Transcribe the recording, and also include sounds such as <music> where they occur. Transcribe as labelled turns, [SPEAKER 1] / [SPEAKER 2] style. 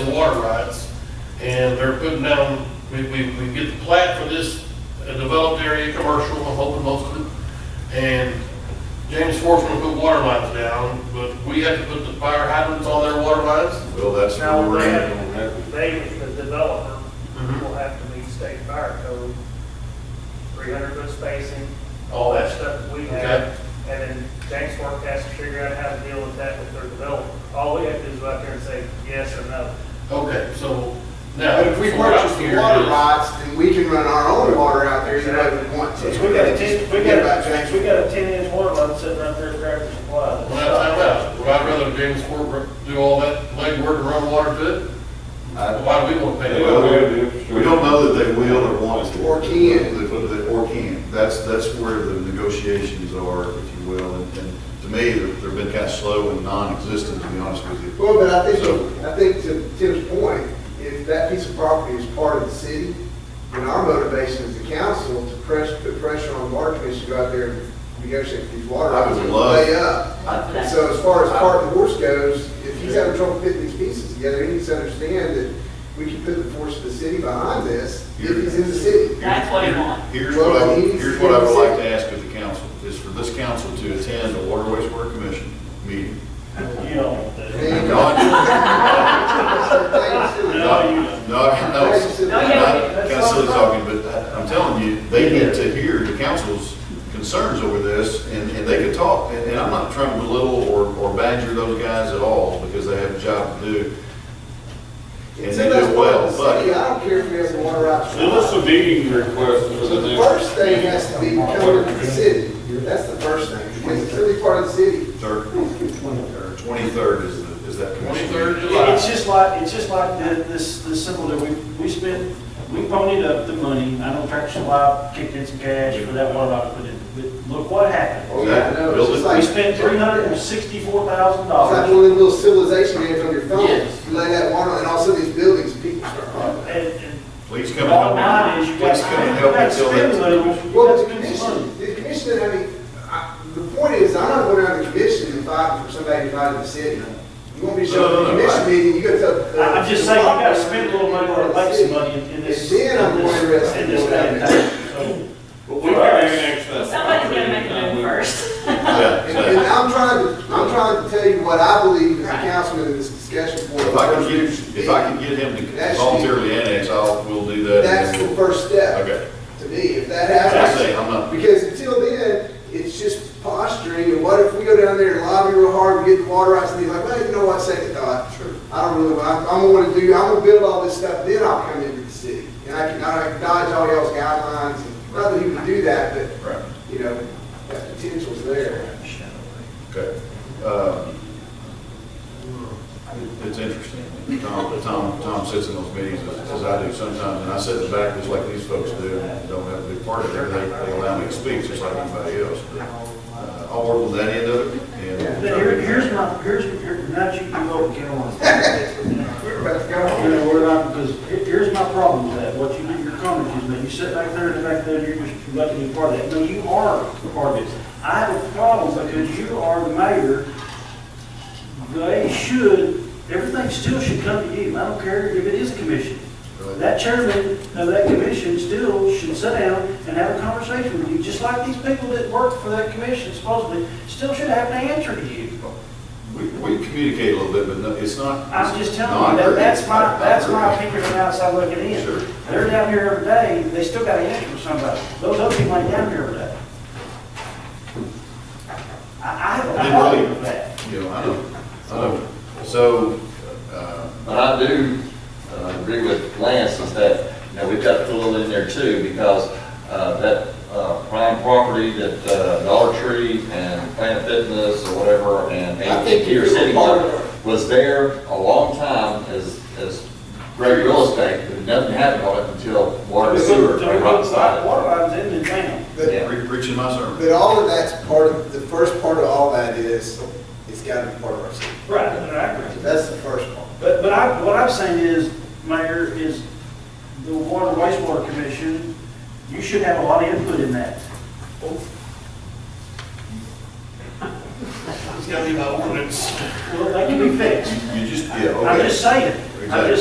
[SPEAKER 1] water rights, and they're putting down, we, we, we get the plat for this uh, developed area, commercial, I'm hoping most of it, and James Ford's gonna put water lines down, but we have to put the fire hydrants on their water lines.
[SPEAKER 2] Well, that's where
[SPEAKER 3] Now,
[SPEAKER 2] we're
[SPEAKER 3] they
[SPEAKER 2] at on that.
[SPEAKER 3] have, they, the developer, will have to meet state fire code, three hundred foot spacing, all that stuff that we have. And then James Fork has to figure out how to deal with that with their developer. All we have to do is go out there and say yes or no.
[SPEAKER 1] Okay, so now.
[SPEAKER 4] But if we
[SPEAKER 1] so what I'm
[SPEAKER 4] purchase the
[SPEAKER 1] hearing
[SPEAKER 4] water
[SPEAKER 1] is-
[SPEAKER 4] rights, then we can run our own water out there if we want to.
[SPEAKER 3] Since we got a ten, we
[SPEAKER 4] Forget
[SPEAKER 3] got,
[SPEAKER 4] about
[SPEAKER 3] since
[SPEAKER 4] James.
[SPEAKER 3] we got a ten inch water line sitting out there at Tractor Supply.
[SPEAKER 1] Well, now, time out, would I rather James Ford do all that legwork and run water to it? Why do we wanna pay?
[SPEAKER 2] Well,
[SPEAKER 1] that?
[SPEAKER 2] We we don't know that they will or want to.
[SPEAKER 4] Or can.
[SPEAKER 2] They put that- Or can. That's, that's where the negotiations are, if you will. And and to me, they've they've been kind of slow and non-existent, to be honest with you.
[SPEAKER 4] Well, but I think,
[SPEAKER 2] So-
[SPEAKER 4] I think to Tim's point, if that piece of property is part of the city, then our motivation as the council to press, put pressure on the water commission to go out there and negotiate these water
[SPEAKER 2] I
[SPEAKER 4] rights.
[SPEAKER 2] would love-
[SPEAKER 4] Way up. And so as far as part of the horse goes, if he's having trouble fitting these pieces together, he needs to understand that we can put the force of the city behind this if he's in the city.
[SPEAKER 3] <laughs>
[SPEAKER 5] That's what he wants.
[SPEAKER 2] Here's what I,
[SPEAKER 4] Well, he's-
[SPEAKER 2] here's what I would like to ask of the council, is for this council to attend the Water Wastewater Commission meeting.
[SPEAKER 3] You don't want that.
[SPEAKER 4] And-
[SPEAKER 2] Not,
[SPEAKER 3] No, you
[SPEAKER 2] not,
[SPEAKER 3] don't.
[SPEAKER 2] not, no,
[SPEAKER 4] Thanks to the-
[SPEAKER 5] No, yeah,
[SPEAKER 2] not, kind
[SPEAKER 3] that's
[SPEAKER 2] of
[SPEAKER 3] all
[SPEAKER 2] silly
[SPEAKER 3] fine.
[SPEAKER 2] talking, but I- I'm telling you, they need to hear the council's concerns over this, and, and they could talk, and, and I'm not trying to belittle or, or badger those guys at all, because they have a job to do. And
[SPEAKER 4] It's
[SPEAKER 2] they
[SPEAKER 4] in those
[SPEAKER 2] do well,
[SPEAKER 4] parts of the city,
[SPEAKER 2] but,
[SPEAKER 4] I don't care if we have the water rights.
[SPEAKER 6] Send us a meeting request for
[SPEAKER 4] So
[SPEAKER 6] the
[SPEAKER 4] the
[SPEAKER 6] next.
[SPEAKER 4] first thing has to be covered in the city, that's the first thing, because it's really part of the city.
[SPEAKER 2] third, twenty-third is, the- is that commission.
[SPEAKER 1] Twenty-third of
[SPEAKER 3] It- It's
[SPEAKER 1] July.
[SPEAKER 3] just like, it's just like the- this, this symbol that we, we spent, we ponied up the money, I know Tractor Supply kicked in some cash for that water line put in, but look what happened.
[SPEAKER 4] Oh, yeah, I know, it's just
[SPEAKER 2] Building.
[SPEAKER 4] like.
[SPEAKER 3] We spent three hundred and sixty-four thousand
[SPEAKER 4] It's like one
[SPEAKER 3] dollars,
[SPEAKER 4] of them little civilization games on your phone,
[SPEAKER 5] Yes.
[SPEAKER 4] you lay that water, and also these buildings, people start.
[SPEAKER 3] and, and
[SPEAKER 2] Please come
[SPEAKER 3] the
[SPEAKER 2] and
[SPEAKER 3] bottom
[SPEAKER 2] help
[SPEAKER 3] line
[SPEAKER 2] me.
[SPEAKER 3] is, you got,
[SPEAKER 2] Please
[SPEAKER 3] you
[SPEAKER 2] come and help
[SPEAKER 3] got
[SPEAKER 2] me
[SPEAKER 3] to
[SPEAKER 2] till
[SPEAKER 3] spend
[SPEAKER 2] that.
[SPEAKER 3] money, you
[SPEAKER 4] Well,
[SPEAKER 3] got to
[SPEAKER 4] the
[SPEAKER 3] spend some money.
[SPEAKER 4] commission, the commission, I mean, I, the point is, I'm not going around the commission and fighting for somebody to fight in the city. You want me to show up at
[SPEAKER 2] No, no,
[SPEAKER 4] the
[SPEAKER 2] no,
[SPEAKER 4] commission
[SPEAKER 2] I-
[SPEAKER 4] meeting, you gotta tell.
[SPEAKER 3] I- I'm just saying, you gotta spend a little money or make some money in- in this,
[SPEAKER 4] And then I'm
[SPEAKER 3] in this-
[SPEAKER 4] more interested
[SPEAKER 3] in this
[SPEAKER 4] in
[SPEAKER 3] day and
[SPEAKER 4] what
[SPEAKER 3] time. So,
[SPEAKER 6] But we can annex that.
[SPEAKER 5] Somebody's gonna make a
[SPEAKER 6] property,
[SPEAKER 5] move first.
[SPEAKER 2] Yeah,
[SPEAKER 4] And, and
[SPEAKER 2] exactly.
[SPEAKER 4] I'm trying to, I'm trying to tell you what I believe as a
[SPEAKER 5] Right.
[SPEAKER 4] councilman in this discussion board.
[SPEAKER 2] If I can get, if I can get him to
[SPEAKER 4] That's-
[SPEAKER 2] voluntarily annex, I'll, we'll do that.
[SPEAKER 4] That's the first step
[SPEAKER 2] Okay.
[SPEAKER 4] to me, if that
[SPEAKER 2] I
[SPEAKER 4] happens.
[SPEAKER 2] say, I'm not,
[SPEAKER 4] Because until then, it's just posturing, and what if we go down there and lobby real hard, we get the water rights, and he's like, well, you know what, second thought. Sure. I don't really, I'm, I'm gonna wanna do, I'm gonna build all this stuff, then I'll come into the city. And I can, I can dodge all y'all's guidelines, and not that he would do that, but,
[SPEAKER 2] right,
[SPEAKER 4] you know, that potential's there.
[SPEAKER 2] okay. Um, It's interesting. Tom, Tom, Tom sits in those meetings as as I do sometimes, and I sit in the back just like these folks do, and don't have to be part of it. They, they allow me to speak just like anybody else. But uh, I'll work on that end of it,
[SPEAKER 3] but
[SPEAKER 2] and.
[SPEAKER 3] here, here's my, here's, here, now that you can go and get on.
[SPEAKER 4] We're about to
[SPEAKER 3] You
[SPEAKER 4] go.
[SPEAKER 3] know, we're not, because here- here's my problem with that, what you do, your comments is that you sit back there and back there, you're just letting me part of that. No, you are part of it. I have a problem because you are the mayor. They should, everything still should come to you. I don't care if it is a commission. That chairman of that commission still should sit down and have a conversation with you, just like these people that work for that commission supposedly still should have an answer to you.
[SPEAKER 2] We, we communicate a little bit, but no, it's not.
[SPEAKER 3] I'm just telling you, that, that's my, that's my opinion from outside looking
[SPEAKER 2] Sure.
[SPEAKER 3] in. They're down here every day, they still got an answer from somebody. Those other people ain't down here every day. I, I have a
[SPEAKER 2] Didn't
[SPEAKER 3] problem
[SPEAKER 2] really-
[SPEAKER 3] with that.
[SPEAKER 2] You know, I know, I know. So, uh,
[SPEAKER 7] But I do uh, agree with Lance is that, you know, we've got to put a little in there too, because uh, that uh, prime property that uh, Dollar Tree and Planet Fitness or whatever, and
[SPEAKER 4] I think
[SPEAKER 7] AT&T or
[SPEAKER 4] you were
[SPEAKER 7] City
[SPEAKER 4] part of
[SPEAKER 7] Mart was there a long time as, as great real estate, but nothing happened on it until water and sewer
[SPEAKER 3] So we put
[SPEAKER 7] rocked
[SPEAKER 3] Water lines in the town.
[SPEAKER 4] But-
[SPEAKER 7] Yeah.
[SPEAKER 2] Pre- Preaching my sermon.
[SPEAKER 4] But all of that's part of, the first part of all that is, it's gotta be part of our city.
[SPEAKER 3] Right, I agree.
[SPEAKER 4] That's the first part.
[SPEAKER 3] But, but I, what I'm saying is, Mayor, is the Water Wastewater Commission, you should have a lot of input in that.
[SPEAKER 1] It's gotta be by ordinance.
[SPEAKER 3] Well, that can be fixed.
[SPEAKER 2] You just, yeah, okay.
[SPEAKER 3] I'm just saying, I'm
[SPEAKER 2] Exactly.
[SPEAKER 3] just